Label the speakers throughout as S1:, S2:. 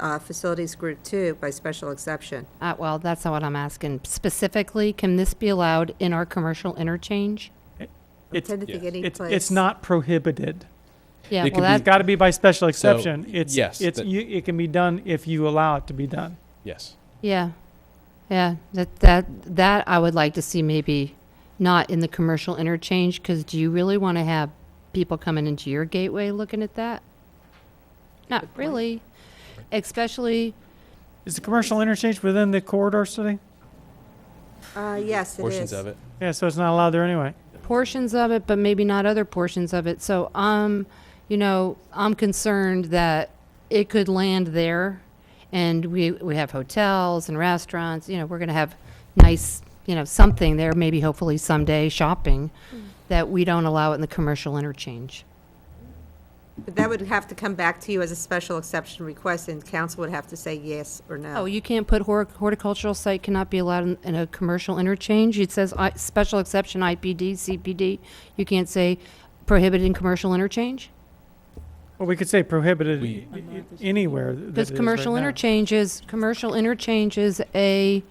S1: uh, Facilities Group 2 by special exception.
S2: Uh, well, that's not what I'm asking. Specifically, can this be allowed in our commercial interchange?
S1: I'm
S3: It's,
S1: tending to get any
S3: it's,
S1: place.
S3: it's not prohibited.
S2: Yeah,
S4: It
S2: well,
S3: It's
S4: could
S2: that,
S4: be-
S3: got to be by special exception. It's,
S4: yes,
S3: it's,
S4: that-
S3: you, it can be done if you allow it to be done.
S4: Yes.
S2: yeah, yeah, that, that, that I would like to see maybe not in the commercial interchange, because do you really want to have people coming into your gateway looking at that? Not really, especially,
S3: Is the commercial interchange within the corridor city?
S1: Uh, Yes, it is.
S4: Portions of it.
S3: Yeah, so it's not allowed there anyway.
S2: portions of it, but maybe not other portions of it. So um, you know, I'm concerned that it could land there, and we we have hotels and restaurants. You know, we're going to have nice, you know, something there. Maybe hopefully someday shopping that we don't allow it in the commercial interchange.
S1: But that would have to come back to you as a special exception request, and council would have to say yes or
S2: Oh,
S1: no.
S2: you can't put hor- horticultural site cannot be allowed in, in a commercial interchange. It says I, special exception IPD CPD. You can't say prohibited in commercial interchange.
S3: Well, we could say prohibited
S4: We-
S3: i- i- anywhere. th- that
S2: Because
S3: it is
S2: commercial
S3: right now.
S2: interchange is, commercial interchange is a,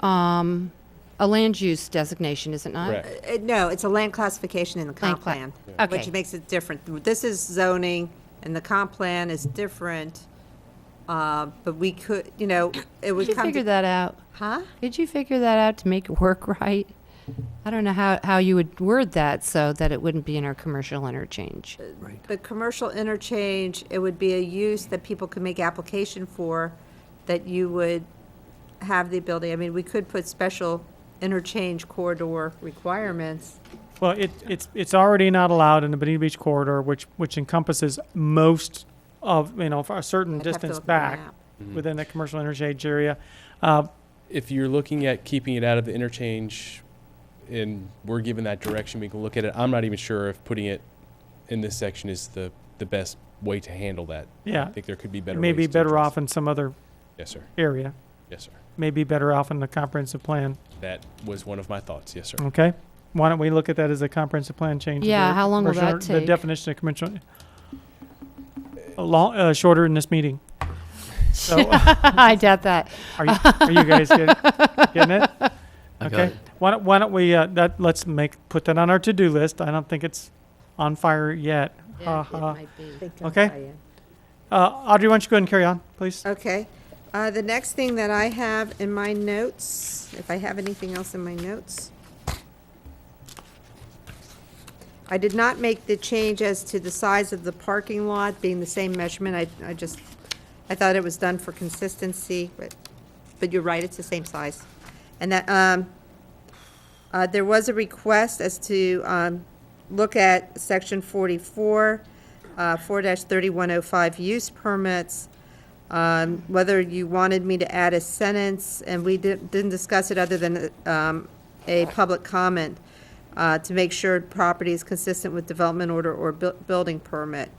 S2: um, a land use designation, is it not?
S4: Correct.
S1: Uh, No, it's a land classification in the comp
S2: cla-
S1: plan,
S2: Yeah.
S1: which
S2: Okay.
S1: makes it different. This is zoning, and the comp plan is different, uh, but we could, you know, it
S2: Could
S1: would
S2: you
S1: come
S2: figure
S1: to...
S2: that out?
S1: Huh?
S2: Could you figure that out to make it work right? I don't know how, how you would word that so that it wouldn't be in our commercial interchange.
S1: But commercial interchange, it would be a use that people could make application for, that you would have the ability, I mean, we could put special interchange corridor requirements.
S3: Well, it, it's, it's already not allowed in the Bonita Beach corridor, which, which encompasses most of, you know, for a certain
S1: I'd have to
S3: distance
S1: look at the
S3: back
S1: map.
S4: Mm-hmm.
S3: within the commercial interchange area. Uh,
S4: If you're looking at keeping it out of the interchange and we're given that direction, we can look at it. I'm not even sure if putting it in this section is the, the best way to handle that. I
S3: yeah,
S4: think there could be
S3: it
S4: better
S3: may be
S4: ways to
S3: better
S4: address
S3: off in some other
S4: it. Yes, sir.
S3: area,
S4: Yes, sir.
S3: may be better off in the comprehensive plan,
S4: That was one of my thoughts. Yes, sir.
S3: okay? Why don't we look at that as a comprehensive plan change? of
S2: Yeah,
S3: the
S2: how long will
S3: commercial-
S2: that
S3: The
S2: take?
S3: definition of commercial, a long, uh, shorter in this meeting. So,
S2: I doubt that.
S3: Are you, are you guys getting, getting it? Okay.
S5: it.
S3: Why don't, why don't we, uh, that, let's make, put that on our to-do list. I don't think it's on fire yet. Ha ha. Okay. Uh, Audrey, why don't you go ahead and carry on, please?
S1: Okay, uh, the next thing that I have in my notes, if I have anything else in my notes. I did not make the change as to the size of the parking lot being the same measurement, I, I just, I thought it was done for consistency, but, but you're right, it's the same size. And that, um, uh, there was a request as to, um, look at section forty-four, uh, four thirty-one oh five use permits um, whether you wanted me to add a sentence, and we did- didn't discuss it other than um, a public comment, uh, to make sure property is consistent with development order or buil- building permit.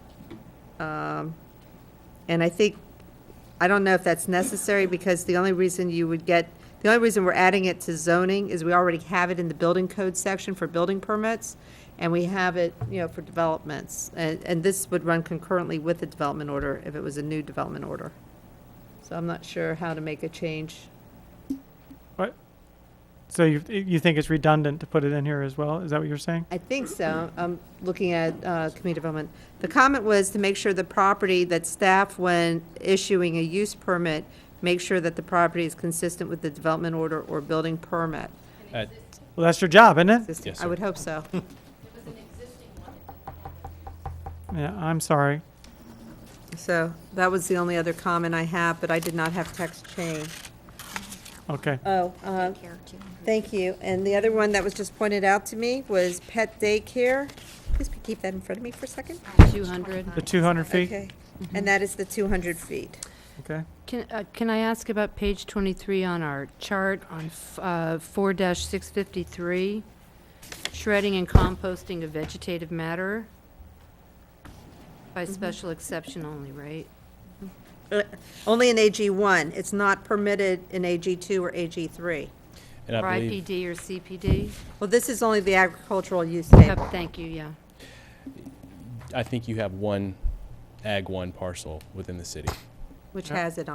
S1: Um, And I think, I don't know if that's necessary, because the only reason you would get, the only reason we're adding it to zoning is we already have it in the building code section for building permits, and we have it, you know, for developments. And, and this would run concurrently with the development order if it was a new development order. So I'm not sure how to make a change.
S3: So you, you think it's redundant to put it in here as well? Is that what you're saying?
S1: I think so. I'm looking at uh, community development. The comment was to make sure the property, that staff, when issuing a use permit, make sure that the property is consistent with the development order or building permit.
S4: Uh,
S3: Well, that's your job, isn't it?
S1: This-
S4: Yes,
S1: I
S4: sir.
S1: would hope so.
S3: Yeah, I'm sorry.
S1: So that was the only other comment I have, but I did not have text change.
S3: Okay.
S1: Oh, uh, thank you. And the other one that was just pointed out to me was pet daycare. Please keep that in front of me for a second.
S2: Uh-huh. 200.
S3: The 200 feet,
S1: Okay. And that is the 200 feet.
S3: okay?
S2: Can, uh, can I ask about page 23 on our chart on f- uh, 4-653, shredding and composting of vegetative matter? By
S4: Mm-hmm.
S2: special exception only, right?
S1: Uh, Only in AG1. It's not permitted in AG2 or AG3.
S4: And
S2: Or
S4: I believe
S2: IPD or CPD?
S1: Well, this is only the agricultural use table.
S2: Yep, Thank you, yeah.
S4: I think you have one ag one parcel within the city.
S1: which
S3: Yeah.
S1: has it